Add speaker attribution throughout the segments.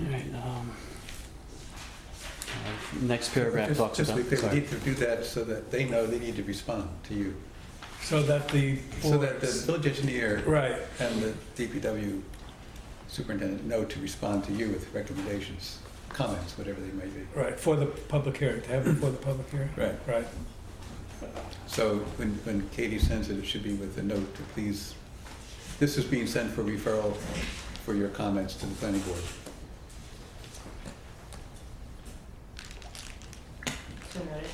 Speaker 1: All right, um, uh, Next paragraph
Speaker 2: Just-
Speaker 1: talks
Speaker 2: Just
Speaker 1: about,
Speaker 2: be clear, we
Speaker 1: sorry.
Speaker 2: need to do that so that they know they need to respond to you.
Speaker 3: So that the
Speaker 2: So that the
Speaker 3: boards,
Speaker 2: village engineer
Speaker 3: right,
Speaker 2: and the DPW superintendent know to respond to you with recommendations, comments, whatever they may be.
Speaker 3: right, for the public hearing, to have it for the public hearing,
Speaker 2: Right.
Speaker 3: right,
Speaker 2: So when, when Katie sends it, it should be with a note to please, this is being sent for referral for your comments to the planning board.
Speaker 4: So noted.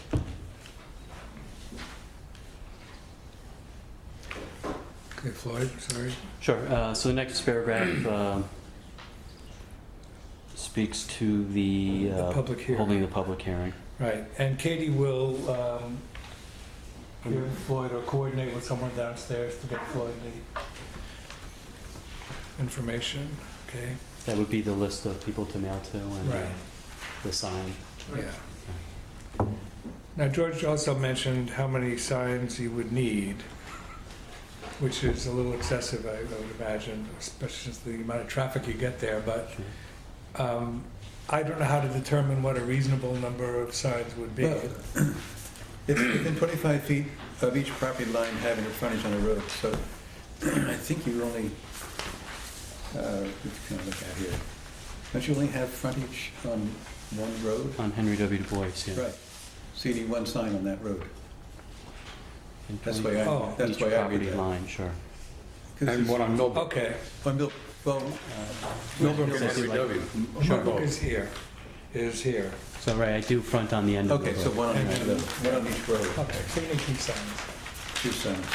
Speaker 3: okay, Floyd, sorry.
Speaker 1: Sure, uh, so the next paragraph um, speaks to the,
Speaker 3: The
Speaker 1: uh,
Speaker 3: public hearing,
Speaker 1: holding the public hearing.
Speaker 3: right, and Katie will, um, give Floyd or coordinate with someone downstairs to get Floyd the information, okay?
Speaker 1: That would be the list of people to mail to and uh,
Speaker 3: Right.
Speaker 1: the sign.
Speaker 3: Yeah. Now, George also mentioned how many signs you would need, which is a little excessive, I would imagine, especially since the amount of traffic you get there, but
Speaker 1: Sure.
Speaker 3: um, I don't know how to determine what a reasonable number of signs would be.
Speaker 2: Well, It's within 25 feet of each property line having a frontage on a road, so I think you only, uh, what can I look at here? Don't you only have frontage on one road?
Speaker 1: On Henry W. Du Bois, yeah.
Speaker 2: Right, so you need one sign on that road.
Speaker 1: And
Speaker 2: That's
Speaker 1: twenty-
Speaker 2: why I,
Speaker 3: Oh.
Speaker 2: that's
Speaker 1: Each
Speaker 2: why I read
Speaker 1: property
Speaker 2: that.
Speaker 1: line, sure.
Speaker 2: 'Cause
Speaker 5: And
Speaker 2: it's
Speaker 5: one on Millbrook.
Speaker 3: Okay,
Speaker 2: On Mil, well, Millbrook and Henry W.
Speaker 3: Millbrook is here, is here.
Speaker 1: So, right, I do front on the end of the
Speaker 2: Okay, so
Speaker 1: road.
Speaker 2: one on each of them, one on each road,
Speaker 3: Okay, so we need two signs.
Speaker 2: two signs.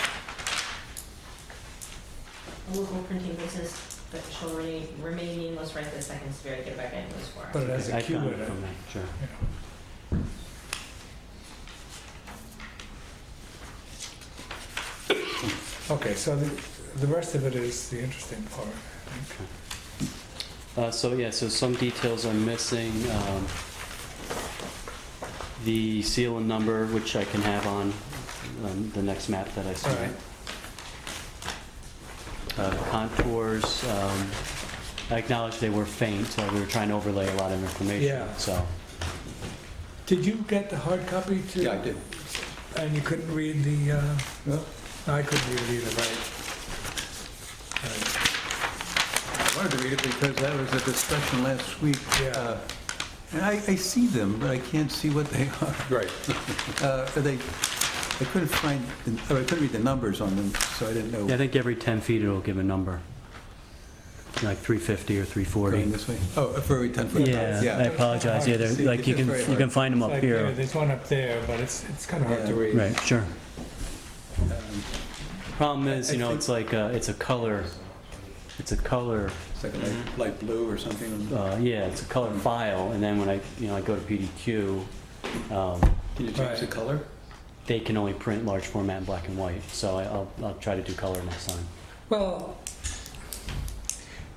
Speaker 4: A local printing business that shall remain, remain nameless right this second is very good by nameless for.
Speaker 3: But it has a
Speaker 1: I
Speaker 3: queue
Speaker 1: found
Speaker 3: in
Speaker 1: it
Speaker 3: it.
Speaker 1: from that, sure.
Speaker 3: Okay, so the, the rest of it is the interesting part.
Speaker 1: Uh, So, yeah, so some details are missing. Um, The seal and number, which I can have on um, the next map that I
Speaker 3: All
Speaker 1: submit.
Speaker 3: right.
Speaker 1: Uh, Contours, um, I acknowledge they were faint, uh, we were trying to overlay a lot of information,
Speaker 3: Yeah.
Speaker 1: so.
Speaker 3: Did you get the hard copy too?
Speaker 2: Yeah, I did.
Speaker 3: And you couldn't read the, uh,
Speaker 2: Well,
Speaker 3: no, I couldn't read it either, right? Right.
Speaker 2: I wanted to read it because that was a discussion last week.
Speaker 3: Yeah.
Speaker 2: uh, And I, I see them, but I can't see what they are. Right. They, I couldn't find, the- or I couldn't read the numbers on them, so I didn't know.
Speaker 1: Yeah, I think every 10 feet it'll give a number, like 350 or
Speaker 2: Going
Speaker 1: 340.
Speaker 2: this way? Oh, for every 10 foot.
Speaker 1: Yeah, I apologize, yeah, they're, like, you can, you can find them
Speaker 3: It's
Speaker 1: up
Speaker 3: like, yeah,
Speaker 1: here.
Speaker 3: There's one up there, but it's, it's kind of hard to
Speaker 2: Yeah.
Speaker 3: read.
Speaker 1: Right, sure.
Speaker 2: Um,
Speaker 1: Problem is, you
Speaker 2: I
Speaker 1: know,
Speaker 2: think-
Speaker 1: it's like, uh, it's a color, it's a color,
Speaker 2: It's like a light- light blue or something.
Speaker 1: uh, yeah, it's a color file, and then when I, you know, I go to PDQ, um,
Speaker 2: Can you change the
Speaker 3: Right.
Speaker 2: color?
Speaker 1: they can only print large format in black and white, so I- I'll, I'll try to do color next time,
Speaker 3: Well,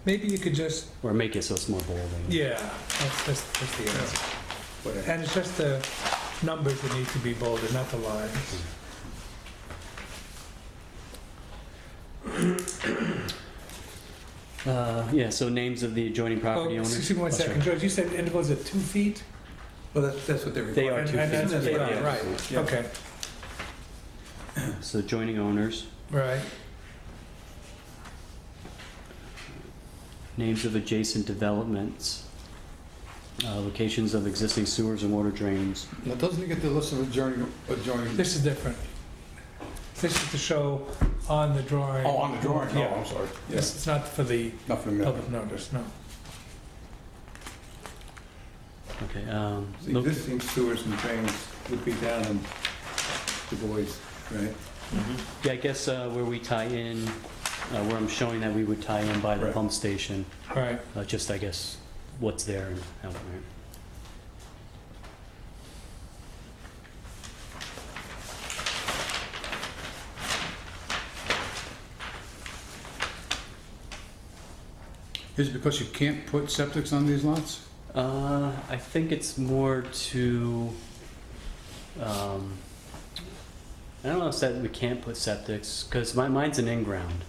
Speaker 3: maybe you could just,
Speaker 1: or make it so it's more bold. I mean.
Speaker 3: yeah, that's, that's, that's the answer.
Speaker 2: Whatever.
Speaker 3: And it's just the numbers that need to be bolded, not the lines.
Speaker 1: Uh, yeah, so names of the adjoining
Speaker 3: Oh,
Speaker 1: property owners.
Speaker 3: excuse me one
Speaker 1: Oh, sorry.
Speaker 3: second, George, you said intervals at two feet?
Speaker 2: Well, that's, that's what they're
Speaker 1: They are
Speaker 2: requiring.
Speaker 3: And-
Speaker 1: two feet.
Speaker 3: and that's-
Speaker 2: That's what
Speaker 3: yeah,
Speaker 2: I have.
Speaker 3: Right,
Speaker 2: Yeah.
Speaker 3: okay,
Speaker 1: So adjoining owners,
Speaker 3: right.
Speaker 1: names of adjacent developments, uh, locations of existing sewers and water drains.
Speaker 5: Now, doesn't it get the list of adjoining, adjoining?
Speaker 3: This is different. This is to show on the drawing.
Speaker 5: Oh, on the drawing, oh,
Speaker 3: Yeah,
Speaker 5: I'm sorry.
Speaker 3: This- it's not for the
Speaker 5: Nothing, no.
Speaker 3: public notice, no.
Speaker 1: Okay, um,
Speaker 2: The
Speaker 1: look,
Speaker 2: Existing sewers and drains would be down in Du Bois, right?
Speaker 1: yeah, I guess, uh, where we tie in, uh, where I'm showing that we would tie in by the
Speaker 2: Right.
Speaker 1: pump station,
Speaker 3: All right,
Speaker 1: uh, just, I guess, what's there and how, right?
Speaker 5: Is it because you can't put septics on these lots?
Speaker 1: Uh, I think it's more to, um, I don't know if that we can't put septics, because my, mine's an in-ground.